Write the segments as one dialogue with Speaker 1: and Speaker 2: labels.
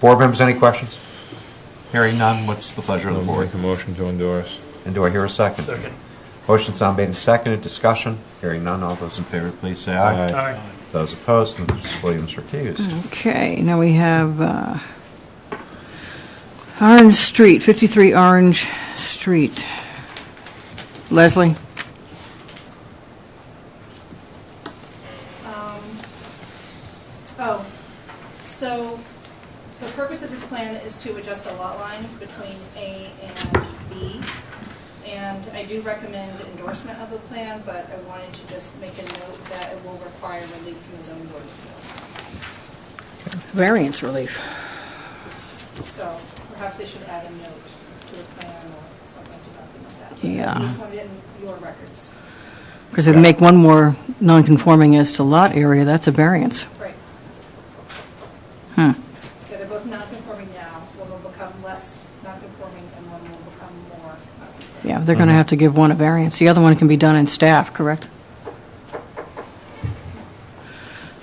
Speaker 1: Board members, any questions? Hearing none, what's the pleasure of the
Speaker 2: I'll
Speaker 1: board?
Speaker 2: make a motion to endorse.
Speaker 1: And do I hear a second?
Speaker 3: Second.
Speaker 1: Motion's now made and seconded, discussion. Hearing none, all those in favor, please say aye.
Speaker 2: Aye.
Speaker 3: Aye.
Speaker 1: Those opposed, Mrs. Williams recused.
Speaker 4: Okay, now we have uh, Orange Street, 53 Orange Street. Leslie?
Speaker 5: Um, Oh, so the purpose of this plan is to adjust the lot lines between A and B. And I do recommend endorsement of the plan, but I wanted to just make a note that it will require relief from the zoning board of
Speaker 4: Variance relief.
Speaker 5: appeals. So perhaps they should add a note to the plan or something to document that.
Speaker 4: Yeah.
Speaker 5: At least put it in your records.
Speaker 4: Because if you make one more non-conforming as to lot area, that's a variance.
Speaker 5: Right.
Speaker 4: Hmm.
Speaker 5: Yeah, they're both non-conforming now. One will become less non-conforming and one will become more non-conforming.
Speaker 4: Yeah, they're going to have to give one a variance. The other one can be done in staff, correct?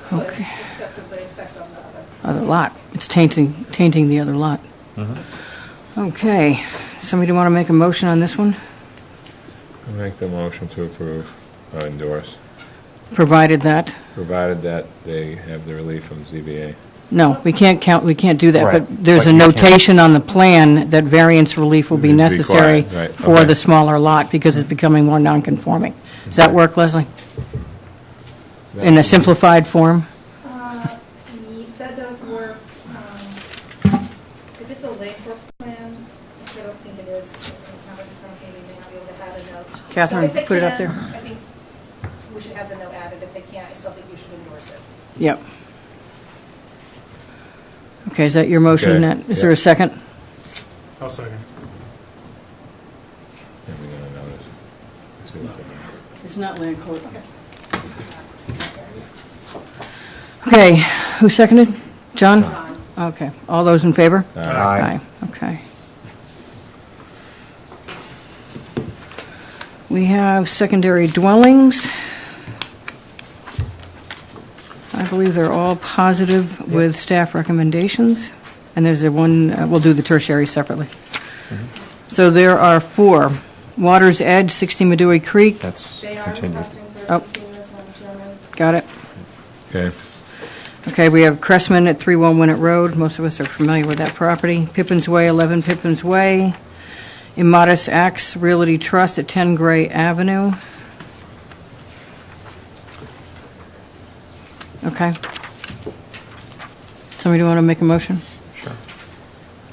Speaker 5: But
Speaker 4: Okay.
Speaker 5: Except for the effect on the other.
Speaker 4: Other lot. It's tainting, tainting the other lot.
Speaker 2: Mm-hmm.
Speaker 1: Mm-hmm.
Speaker 4: Okay, somebody want to make a motion on this one?
Speaker 2: I'll make the motion to approve, uh, endorse,
Speaker 4: Provided that?
Speaker 2: provided that they have the relief from ZBA.
Speaker 4: No, we can't count, we can't do that,
Speaker 1: Right,
Speaker 4: but there's
Speaker 1: but
Speaker 4: a
Speaker 1: you can't-
Speaker 4: notation on the plan that variance relief will be
Speaker 2: Is
Speaker 4: necessary
Speaker 2: required, right,
Speaker 4: for
Speaker 2: okay.
Speaker 4: the smaller lot because it's becoming more nonconforming. Does that work, Leslie? In a simplified form?
Speaker 5: Uh, ye- That does work. um, If it's a labor plan, which I don't think it is, I don't have it in front of me, we may not be able to add a note. So
Speaker 4: Catherine,
Speaker 5: if they
Speaker 4: put it up
Speaker 5: can,
Speaker 4: there.
Speaker 5: I think we should have the note added. If they can't, I still think you should endorse it.
Speaker 4: Yep. Okay, is that your motion,
Speaker 2: Okay,
Speaker 4: Nat? Is there a
Speaker 2: yeah.
Speaker 4: second?
Speaker 3: I'll second.
Speaker 2: And we're gonna notice. See what they-
Speaker 4: It's not land court. Okay, who seconded? John? Okay, all those in favor?
Speaker 2: Aye.
Speaker 4: Okay. We have secondary dwellings. I believe they're all positive with staff recommendations, and there's a one, uh, we'll do the tertiary separately. So there are four. Water's Edge, 60 Medway Creek,
Speaker 1: That's
Speaker 6: They are
Speaker 1: continued.
Speaker 6: requesting for
Speaker 4: Oh.
Speaker 6: a continuous, Madam Chairman.
Speaker 4: got it.
Speaker 2: Okay,
Speaker 4: Okay, we have Cressman at 311 Winnet Road. Most of us are familiar with that property. Pippin's Way, 11 Pippin's Way. Immodest Acts Realty Trust at 10 Gray Avenue. Okay. Somebody want to make a motion?
Speaker 1: Sure.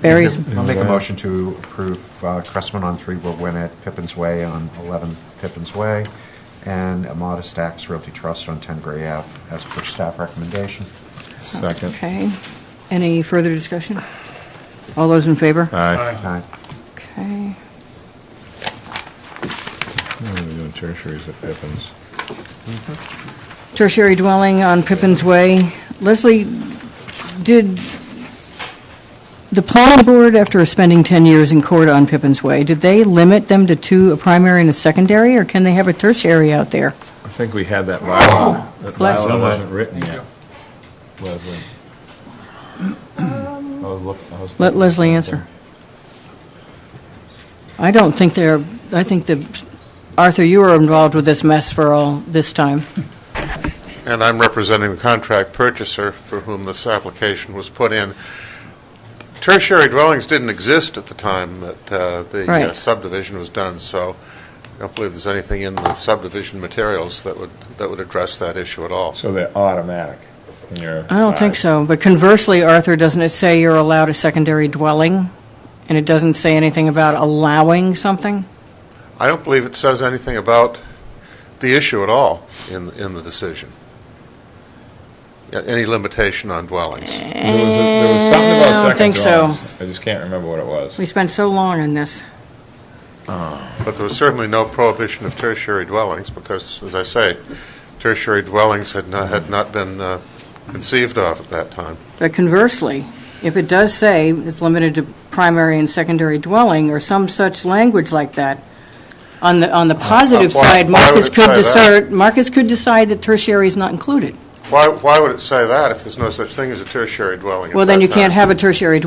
Speaker 4: Barry's,
Speaker 1: I'll make a motion to approve uh, Cressman on 3 Will Winnet, Pippin's Way on 11 Pippin's Way, and Modest Acts Realty Trust on 10 Gray Ave as per staff recommendation.
Speaker 2: second.
Speaker 4: okay. Any further discussion? All those in favor?
Speaker 1: Aye.
Speaker 2: Aye.
Speaker 4: Okay.
Speaker 2: We're doing tertiaries at Pippin's.
Speaker 4: tertiary dwelling on Pippin's Way. Leslie, did the planning board, after spending 10 years in court on Pippin's Way, did they limit them to two, a primary and a secondary, or can they have a tertiary out there?
Speaker 2: I think we had that bylaw. That
Speaker 4: Oh, Bless you.
Speaker 2: bylaw wasn't written yet. Leslie. I was look- I was
Speaker 4: Um, Let
Speaker 2: looking at
Speaker 4: Leslie answer.
Speaker 2: something.
Speaker 4: I don't think they're, I think that, Arthur, you were involved with this mess for all this time.
Speaker 7: and I'm representing the contract purchaser for whom this application was put in. Tertiary dwellings didn't exist at the time that uh, the uh,
Speaker 4: Right.
Speaker 7: subdivision was done, so I don't believe there's anything in the subdivision materials that would, that would address that issue at all.
Speaker 2: So they're automatic in your.
Speaker 4: I don't think
Speaker 2: eyes.
Speaker 4: so, but conversely, Arthur, doesn't it say you're allowed a secondary dwelling? And it doesn't say anything about allowing something?
Speaker 7: I don't believe it says anything about the issue at all in, in the decision. Yeah, Any limitation on dwellings.
Speaker 2: There was, a- there was something
Speaker 4: I
Speaker 2: about
Speaker 4: don't
Speaker 2: second
Speaker 4: think so.
Speaker 2: drawings. I just can't remember what it was.
Speaker 4: We spent so long on this.
Speaker 7: But there was certainly no prohibition of tertiary dwellings, because, as I say, tertiary dwellings had not, had not been uh, conceived of at that time.
Speaker 4: But conversely, if it does say it's limited to primary and secondary dwelling, or some such language like that, on the, on the positive
Speaker 7: why-
Speaker 4: side,
Speaker 7: why would
Speaker 4: Marcus
Speaker 7: it
Speaker 4: could
Speaker 7: say that?
Speaker 4: decide, Marcus could decide that tertiary is not included.
Speaker 7: Why, why would it say that if there's no such thing as a tertiary dwelling at
Speaker 4: Well, then
Speaker 7: that
Speaker 4: you can't
Speaker 7: time?
Speaker 4: have a tertiary